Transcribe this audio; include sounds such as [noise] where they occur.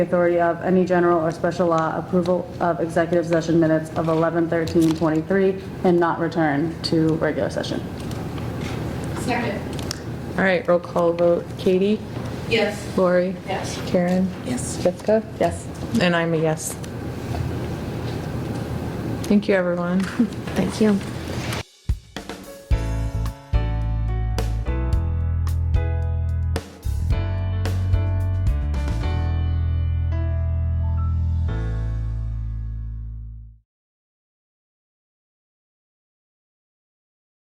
authority of any general or special law approval of executive session minutes of 11/13/23 and not return to regular session. Second. All right, roll call vote. Katie? Yes. Lori? Yes. Karen? Yes. Jessica? Yes. And I'm a yes. Thank you, everyone. [laughs] Thank you.